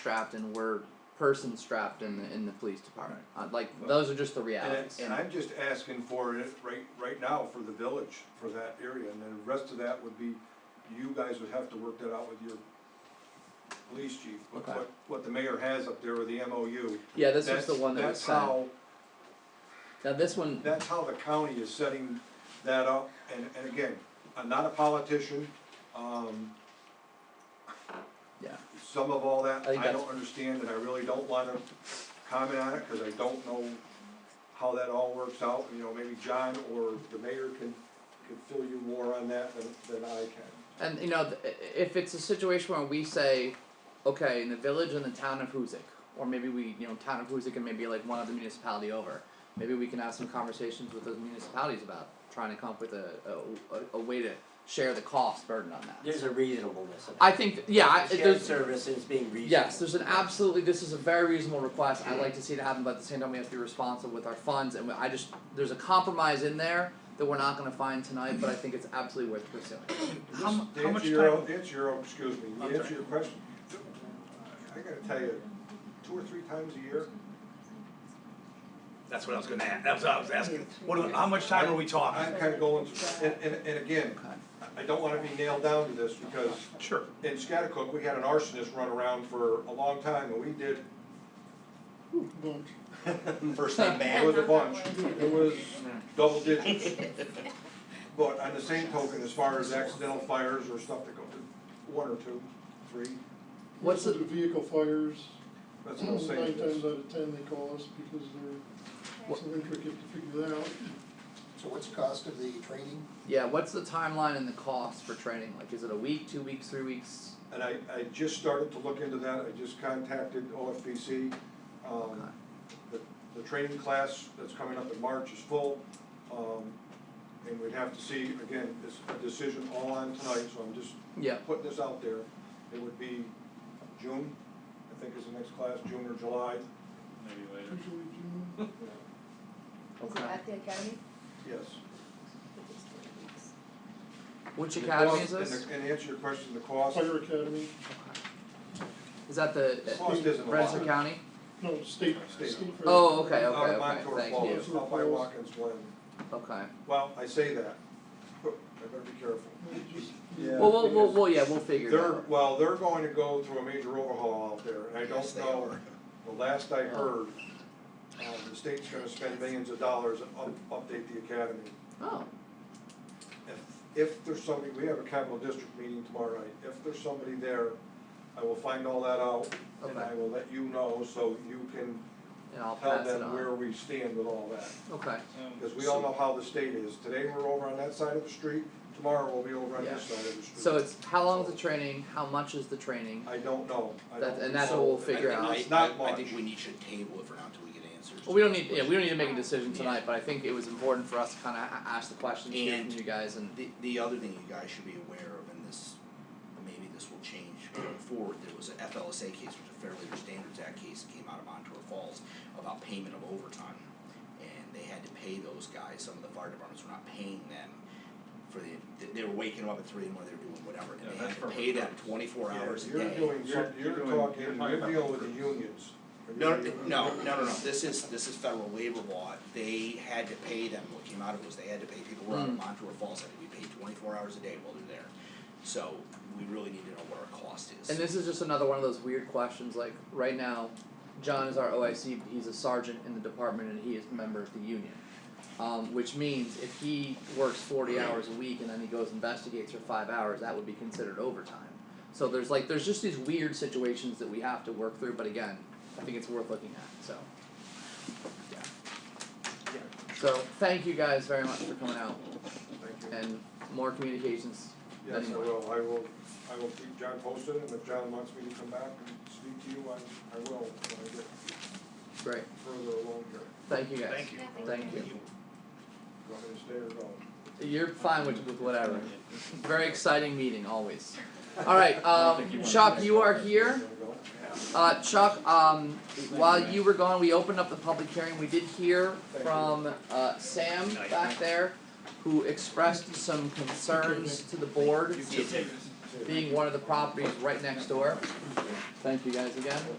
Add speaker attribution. Speaker 1: strapped and we're persons strapped in the in the police department. Uh, like
Speaker 2: Well,
Speaker 1: those are just the
Speaker 2: And,
Speaker 1: realities.
Speaker 2: and I'm just asking for it right, right now for the village, for that area, and then the rest of that would be, you guys would have to work that out with your police chief, what,
Speaker 1: Okay.
Speaker 2: what, what the mayor has up there with the MOU.
Speaker 1: yeah, this was
Speaker 2: That's
Speaker 1: the one that was
Speaker 2: That's
Speaker 1: sent.
Speaker 2: how,
Speaker 1: now this one,
Speaker 2: that's how the county is setting that up, and, and again, I'm not a politician, um,
Speaker 1: yeah,
Speaker 2: some of all
Speaker 1: I
Speaker 2: that,
Speaker 1: think
Speaker 2: I
Speaker 1: that's-
Speaker 2: don't understand, and I really don't wanna comment on it, cause I don't know how that all works out, you know, maybe John or the mayor can, can fill you more on that than, than I can.
Speaker 1: and you know, th- i- if it's a situation where we say, okay, in the village and the town of Hoosick, or maybe we, you know, town of Hoosick and maybe like one other municipality over, maybe we can have some conversations with those municipalities about trying to come up with a a, a, a way to share the cost burden on that.
Speaker 3: There's a reasonableness of it.
Speaker 1: I think, th- yeah, I,
Speaker 3: Shared
Speaker 1: there's
Speaker 3: service is being reasonable.
Speaker 1: Yes, there's an absolutely, this is a very reasonable request, I'd like to see it happen, but at the same time, we have to be responsible with our funds, and we- I just, there's a compromise in there that we're not gonna find tonight, but I think it's absolutely worth pursuing.
Speaker 4: How mu-
Speaker 2: Just
Speaker 4: how
Speaker 2: to
Speaker 4: much
Speaker 2: answer your
Speaker 4: time-
Speaker 2: own- Answer your own, excuse me,
Speaker 4: I'm
Speaker 2: answer
Speaker 4: sorry.
Speaker 2: your question. I gotta tell you, two or three times a year,
Speaker 4: That's what I was gonna ask, that's what I was asking, what, do- how much time are we
Speaker 2: I'm
Speaker 4: talking?
Speaker 2: kinda going, through- and, and, and again, I don't wanna be nailed down to this, because
Speaker 4: Sure.
Speaker 2: in Scotticook, we had an arsonist run around for a long time, and we did
Speaker 5: First name
Speaker 2: It was
Speaker 5: man.
Speaker 2: a bunch, it was double digits. But on the same token, as far as accidental fires or stuff that go to, one or two, three,
Speaker 1: What's
Speaker 6: Also, vehicle fires,
Speaker 2: that's all
Speaker 6: nine
Speaker 2: safe.
Speaker 6: times out of ten they call us because they're so intricate to figure that out.
Speaker 7: So what's the cost of the training?
Speaker 1: Yeah, what's the timeline and the cost for training, like, is it a week, two weeks, three weeks?
Speaker 2: And I, I just started to look into that, I just contacted OFBC. Um, the, the training class that's coming up in March is full. Um, and we'd have to see, again, this, a decision all on tonight, so I'm just
Speaker 1: Yeah,
Speaker 2: putting this out there, it would be June, I think is the next class, June or July.
Speaker 6: Usually June,
Speaker 5: Is it at the academy?
Speaker 2: Yes.
Speaker 1: which
Speaker 2: And the
Speaker 1: academy is
Speaker 2: cost-
Speaker 1: this?
Speaker 2: And the- and to answer your question, the cost,
Speaker 6: fire academy,
Speaker 1: Is that
Speaker 2: the
Speaker 1: the,
Speaker 2: cost isn't a lot.
Speaker 1: Rensselaer County?
Speaker 6: no, state,
Speaker 2: State.
Speaker 6: state. fire
Speaker 1: Oh, okay,
Speaker 6: academy.
Speaker 1: okay.
Speaker 2: Out of Montour
Speaker 1: thank you.
Speaker 2: Falls, out by Watkins Glen,
Speaker 1: Okay,
Speaker 2: well, I say that, but I better be careful.
Speaker 6: Well, just-
Speaker 2: Yeah.
Speaker 1: well, we'll, we'll, well, yeah, we'll figure it
Speaker 2: They're,
Speaker 1: out,
Speaker 2: well, they're going to go through a major overhaul out there, and I
Speaker 7: Yes,
Speaker 2: don't
Speaker 7: they
Speaker 2: know,
Speaker 7: are.
Speaker 2: the last I heard, uh, the state's gonna spend millions of dollars and up, update the academy.
Speaker 1: oh,
Speaker 2: If, if there's somebody, we have a capital district meeting tomorrow night, if there's somebody there, I will find all that out, and I
Speaker 1: Okay.
Speaker 2: will let you know, so you can
Speaker 1: and I'll
Speaker 2: tell
Speaker 1: pass it
Speaker 2: them where
Speaker 1: on,
Speaker 2: we stand with all that.
Speaker 1: okay,
Speaker 2: Because we all know how the state is, today we're over on that side of the street, tomorrow we'll be over on this
Speaker 1: Yeah.
Speaker 2: side of the street.
Speaker 1: so it's, how long is the training, how much is the training?
Speaker 2: I don't know, I
Speaker 1: That-
Speaker 2: don't
Speaker 1: and that's
Speaker 2: know.
Speaker 1: what we'll figure
Speaker 2: I think
Speaker 1: out.
Speaker 2: It's not
Speaker 5: I
Speaker 2: much.
Speaker 5: think we need to table it for now until we get answers.
Speaker 1: Well, we don't need, yeah, we don't need to make a decision tonight, but I think it was important for us to kinda a- ask the questions here from
Speaker 5: And-
Speaker 1: you guys and,
Speaker 5: The, the other thing you guys should be aware of, and this, maybe this will change going forward, there was a FLSA case, which is a Fair Labor Standards Act case that came out of Montour Falls about payment of overtime. And they had to pay those guys, some of the fire departments were not paying them for the, they- they were waking up at three in the morning, they were doing whatever,
Speaker 8: Yeah,
Speaker 5: and they
Speaker 8: that's
Speaker 5: had to
Speaker 8: for
Speaker 5: pay them
Speaker 8: recruits.
Speaker 5: twenty-four
Speaker 2: Yeah,
Speaker 5: hours a day.
Speaker 2: You're doing, you're,
Speaker 8: You're-
Speaker 2: you're
Speaker 8: you're doing-
Speaker 2: talking,
Speaker 8: you're talking
Speaker 2: you're
Speaker 8: about
Speaker 2: dealing with the
Speaker 8: recruits.
Speaker 2: unions.
Speaker 5: No, no, no, no, no, no, this is, this is federal labor law, they had to pay them, what came out of it was they had to pay people who were on
Speaker 1: Mm.
Speaker 5: Montour Falls, had to be paid twenty-four hours a day while they're there. So, we really need to know what our cost is.
Speaker 1: and this is just another one of those weird questions, like, right now, John is our OIC, he's a sergeant in the department and he is a member of the union. Um, which means if he works forty hours a week and then he goes investigates for five hours, that would be considered overtime. So there's like, there's just these weird situations that we have to work through, but again, I think it's worth looking at, so. Yeah. So, thank you guys very much for coming out.
Speaker 2: Thank you.
Speaker 1: and more communications.
Speaker 2: Yes, I
Speaker 1: anyway.
Speaker 2: will, I will, I will keep John posted, and if John wants me to come back and speak to you, I, I will, when I get
Speaker 1: Great.
Speaker 2: further along here.
Speaker 1: Thank you guys.
Speaker 4: Thank you.
Speaker 1: Thank you.
Speaker 2: Do you want me to stay or go?
Speaker 1: You're fine with, with whatever. Very exciting meeting always. All right, um, Chuck, you are here.
Speaker 2: You wanna go?
Speaker 1: Uh, Chuck, um, while you were gone, we opened up the public hearing. We did hear from uh, Sam back there, who expressed some concerns to the board.
Speaker 5: You did,
Speaker 1: being one of the properties right next door. Thank you guys again.